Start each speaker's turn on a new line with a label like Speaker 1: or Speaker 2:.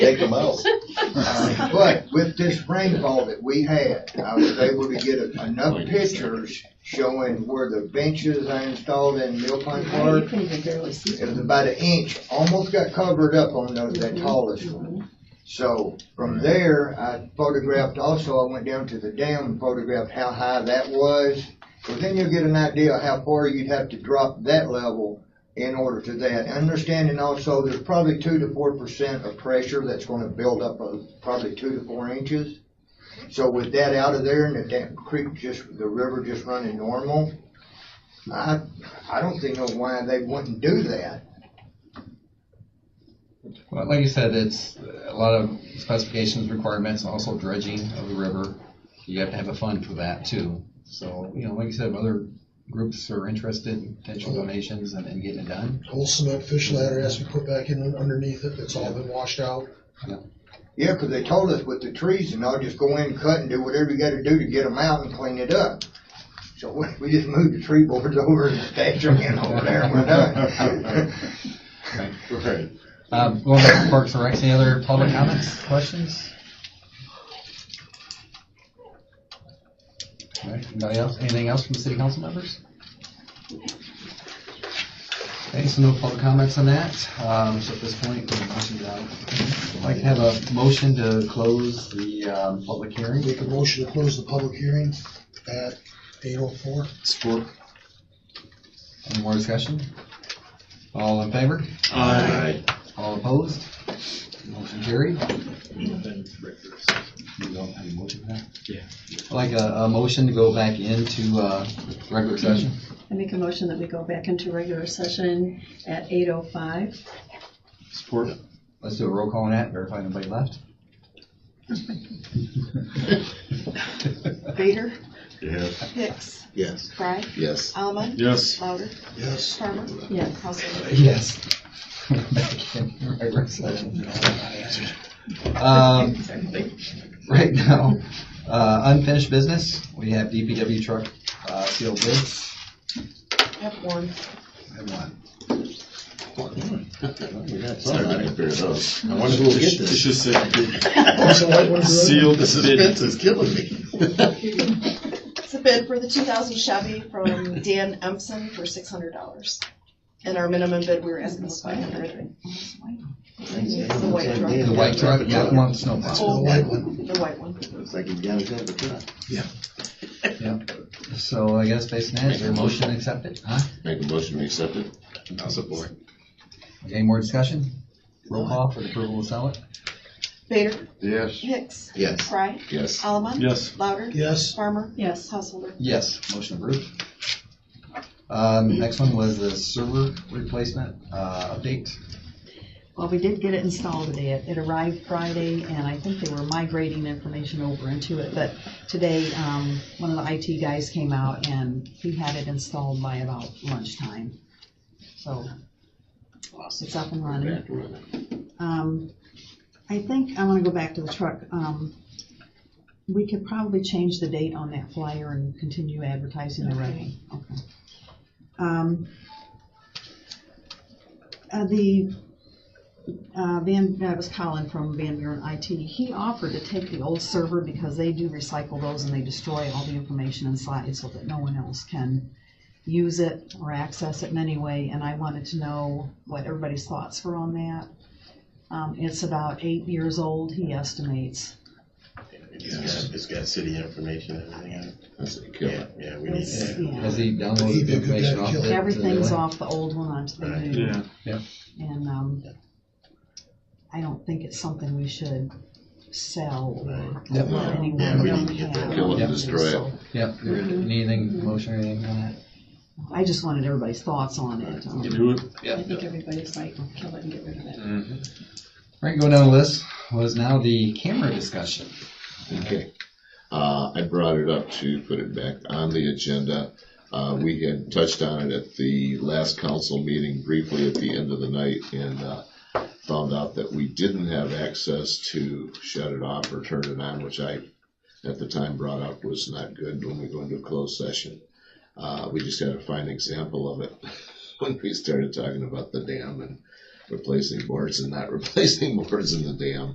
Speaker 1: take them out.
Speaker 2: Uh, But with this rainfall that we had, I was able to get enough pictures showing where the benches I installed in Mill Pond
Speaker 3: You
Speaker 2: Park.
Speaker 3: can even barely see
Speaker 2: It was about an inch, almost got covered up on the, that tallest one. So from there, I photographed also, I went down to the dam and photographed how high that was. So then you'll get an idea of how far you'd have to drop that level in order to that. Understanding also, there's probably two to four percent of pressure that's gonna build up of probably two to four inches. So with that out of there and the dam creek just, the river just running normal, I, I don't think know why they wouldn't do that.
Speaker 4: Well, like you said, it's a lot of specifications, requirements, and also dredging of the river. You have to have a fund for that too. So, you know, like you said, if other groups are interested in potential donations and, and getting it done.
Speaker 5: Whole cement fish ladder has to be put back in underneath it, it's all been washed out.
Speaker 2: Yeah, 'cause they told us with the trees and all, just go in, cut and do whatever you gotta do to get them out and clean it up. So we, we just moved the tree boards over and stashed them in over there and we're done.
Speaker 1: Right.
Speaker 4: Um, going back to Parks and Recs, any other public comments, questions? All right, Anybody else, anything else from city council members? Okay, so no public comments on that, um, so at this point, we're going to, uh, I'd like to have a motion to close the, um, public hearing.
Speaker 5: Make a motion to close the public hearing at eight oh four.
Speaker 4: Support. Any more discussion? All in favor?
Speaker 1: Aye.
Speaker 4: All opposed? Motion carried. You don't have a motion for that?
Speaker 1: Yeah.
Speaker 4: I'd Like a, a motion to go back into, uh, regular session?
Speaker 3: I make a motion that we go back into regular session at 8:05.
Speaker 4: Support. Let's do a roll call on that, verify anybody left.
Speaker 6: Vader,
Speaker 1: Yes.
Speaker 6: Hicks,
Speaker 1: Yes.
Speaker 6: Fry,
Speaker 1: Yes.
Speaker 6: Almond,
Speaker 1: Yes.
Speaker 6: Louder,
Speaker 5: Yes.
Speaker 6: Farmer,
Speaker 3: Yes.
Speaker 6: Householder.
Speaker 4: Yes. Back in regular session. Um, right now, uh, unfinished business, we have DPW truck, uh, sealed bids.
Speaker 6: I have one.
Speaker 4: I have one.
Speaker 1: Everybody figured it out. I wonder who will get this.
Speaker 7: just
Speaker 5: Also, I wanna do it.
Speaker 7: sealed
Speaker 1: The suspense is killing me.
Speaker 6: It's a bid for the two thousand Chevy from Dan Empson for six hundred dollars. And our minimum bid, we were asking was five hundred. It's the white truck,
Speaker 4: The white truck, yeah, the one with the snowplow.
Speaker 5: The white one.
Speaker 6: the white one.
Speaker 1: Looks like he's got a good truck.
Speaker 4: So I guess based on that, is there a motion accepted? Huh?
Speaker 1: Make a motion to accept it. I'll support.
Speaker 4: Any more discussion? Roll call for the approval to sell it?
Speaker 6: Vader,
Speaker 7: Yes.
Speaker 6: Hicks,
Speaker 1: Yes.
Speaker 6: Fry,
Speaker 1: Yes.
Speaker 6: Almond,
Speaker 7: Yes.
Speaker 6: Louder,
Speaker 5: Yes.
Speaker 6: Farmer,
Speaker 3: Yes.
Speaker 6: Householder.
Speaker 4: Yes, motion approved. Um, next one was the server replacement, uh, update.
Speaker 3: Well, we did get it installed today. It it arrived Friday, and I think they were migrating information over into it. But today, um, one of the IT guys came out, and he had it installed by about lunchtime. So it's up and running. Um, I think, I wanna go back to the truck. Um, we could probably change the date on that flyer and continue advertising the writing. Okay. Um, uh, the, uh, Van, that was Colin from Van Buren IT. He offered to take the old server because they do recycle those and they destroy all the information and slides so that no one else can use it or access it in any way. And I wanted to know what everybody's thoughts were on that. Um, it's about eight years old, he estimates.
Speaker 8: It's got, it's got city information, and everything on it.
Speaker 1: That's a killer.
Speaker 8: Yeah, yeah, we need
Speaker 3: It's,
Speaker 8: that.
Speaker 3: yeah,
Speaker 4: Has he downloaded the information off? the-
Speaker 3: everything's off the old one onto the new.
Speaker 7: Yeah.
Speaker 3: And, um, I don't think it's something we should sell or
Speaker 4: Yep.
Speaker 3: let anyone
Speaker 8: Yeah, we need to
Speaker 3: really
Speaker 8: get that
Speaker 3: have.
Speaker 1: Kill it,
Speaker 4: Yeah.
Speaker 1: and destroy it.
Speaker 4: Yep, there-
Speaker 3: Mm-hmm.
Speaker 4: anything, motion or anything on that?
Speaker 3: I just wanted everybody's thoughts on it. um,
Speaker 7: Do it.
Speaker 4: Yep.
Speaker 6: everybody's like, kill it and get rid of it.
Speaker 4: Right, going down the list was now the camera discussion.
Speaker 1: Okay. Uh, I brought it up to put it back on the agenda. Uh, we had touched on it at the last council meeting briefly at the end of the night and, uh, found out that we didn't have access to shut it off or turn it on, which I, at the time, brought up was not good when we go into a closed session. Uh, we just had a fine example of it when we started talking about the dam and replacing boards and not replacing boards in the dam.